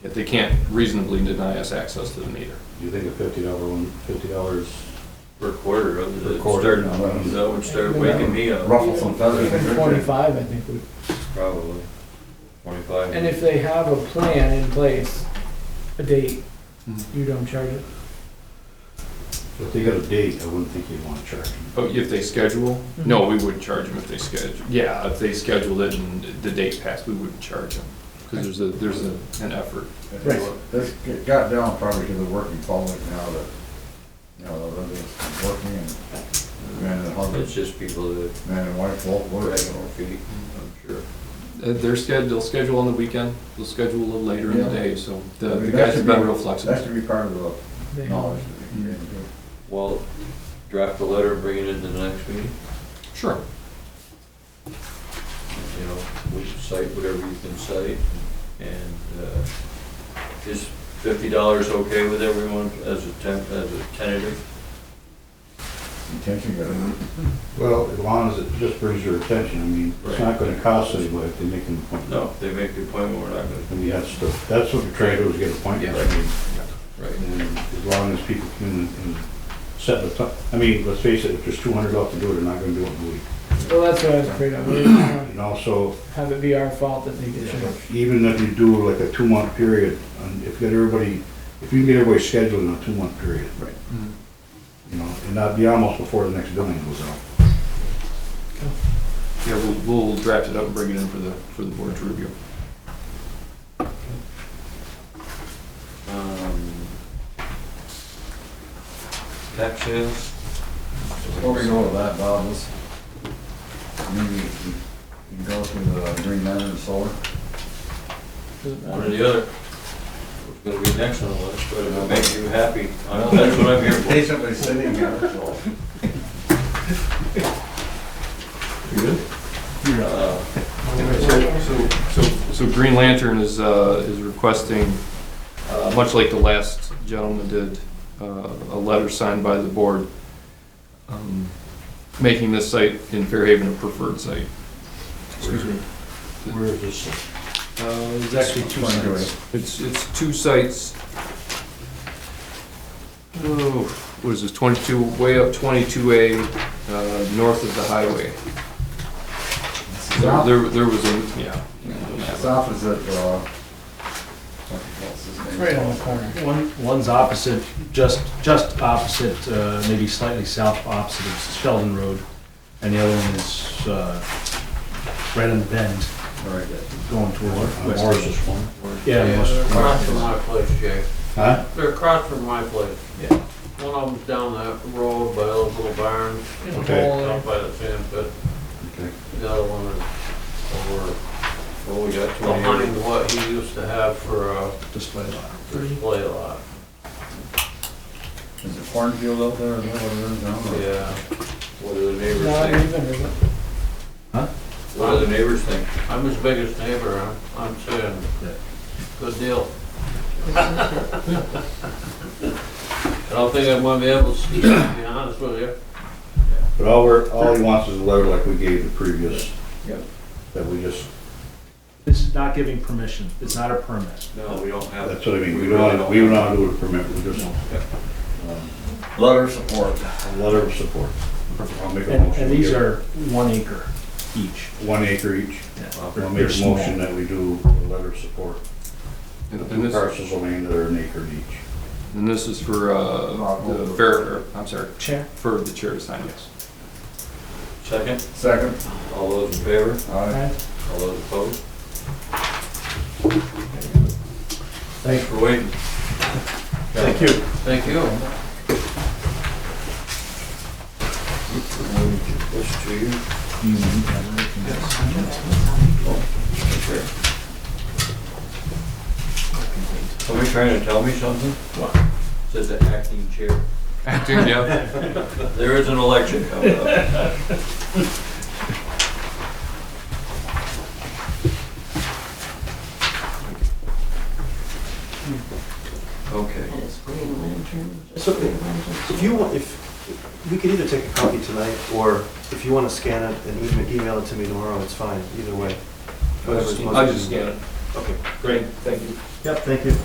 Yet they can't reasonably deny us access to the meter. Do you think a fifty dollar one, fifty dollars? per quarter of Per the quarter, start, no, that was- that would start waking me up, Ruffle some feathers. Even twenty-five, I think. would- probably. Twenty-five. And if they have a plan in place, a date, Mhm. you don't charge it. If they got a date, I wouldn't think you'd wanna charge them. But if they schedule, no, we wouldn't charge them if they schedule. Yeah, if they scheduled it and the date passed, we wouldn't charge them. Because there's a, there's a, an effort. Right. This g- got down probably to the working public now that, you know, the residents are working and man and It's husband, just people that man and wife both drag work. their feet, I'm sure. Uh, They're sched, they'll schedule on the weekend, they'll schedule a little later in the Yeah. day, so the I mean, the that guys should have been be- real That flexible. should be part of the They knowledge have that you can do. Well, draft a letter and bring it into the next meeting, Sure. you know, we can cite whatever you can cite. And, uh, is fifty dollars okay with everyone as a temp, as a tentative? Intention got Mm-hmm. Well, as long as it just brings your attention, I mean, it's not gonna cost anybody if they make an appointment. No, if they make the appointment, we're not gonna, I mean, that's the, that's what we try to do is get appointments. Yeah. I mean, right, And as long as people come in and set the time, I mean, let's face it, if there's two hundred left to do it, they're not gonna do it in a week. Well, that's what I was afraid of. We didn't wanna And also, Have it be our fault that they get charged. even if you do like a two-month period, and if you get everybody, if you can get everybody scheduled in a two-month period. Right. Mhm. Mm-hmm. You know, and that'd be almost before the next billing goes out. Yeah, we'll, we'll draft it up and bring it in for the, for the board to review. um. Tax sales? Before we go to that, Bob, let's, maybe we can go through the green lantern and solar. Doesn't One or matter. the other. It's gonna be next on the list, but if it makes you happy, I'm- that's what I'm here for. Patiently sitting here, so. Uh, So, so, so Green Lantern is, uh, is requesting, uh, much like the last gentleman did, uh, a letter signed by the board, um, making this site in Fairhaven a preferred site. Excuse me. Where is this? Uh, it's actually two Fine, go sites. It's, it's two sites. Oh, what is this, twenty-two, way up twenty-two A, uh, north of the highway. There, Now, there- there was a, yeah. It's opposite, uh, what's his name? Right on the corner. One, one's opposite, just, just opposite, uh, maybe slightly south opposite of Sheldon Road, and the other one is, uh, right on the bend, Right. going toward Where's west. this one? Yeah, They're across from my place, Jay. Huh? They're across from my place. Yeah. One of them's down the road by a little barn, In a Okay. hole there. out by the sand pit. Okay. The other one is over Well, we got twenty, behind what he used to have for a display lot. display lot. Is it cornfield out there? Is that what it is now? or- Yeah. what do the neighbors Not think? even, is it? What do the neighbors think? I'm his biggest neighbor, I'm, I'm saying, Yeah. good deal. I don't think I'm gonna be able to see, it, to be honest with you. But all we're, all he wants is a letter like we gave the previous. Yep. That we just, This is not giving permission, it's not a permit. No, we don't have. that's what I mean, we don't, wanna- we don't wanna do it for permit, we just, um, Letter of support. a letter of support. I'll make a And, motion. and to these give are one acre each. One acre each. They're- I'll they're make a small. motion that we do a letter of support. And and Two this, parcels of land that are an acre each. and this is for, uh, the fair, or, I'm sorry, Chair. for the chair to sign, yes. Second, Second. all those in favor, Aye. Right. all those opposed? Thanks for waiting. Thank you. Thank you. This to you. Somebody trying to tell me something? Said the acting chair. Acting, yeah. There is an election coming up. Okay. And it's Green Lantern. just So- Green Lantern. If you want, if, we could either take a copy tonight, or if you want to scan it and email- email it to me tomorrow, it's fine, either way. I just- I'll just scan it. Okay. Great, thank you. Yep, thank you.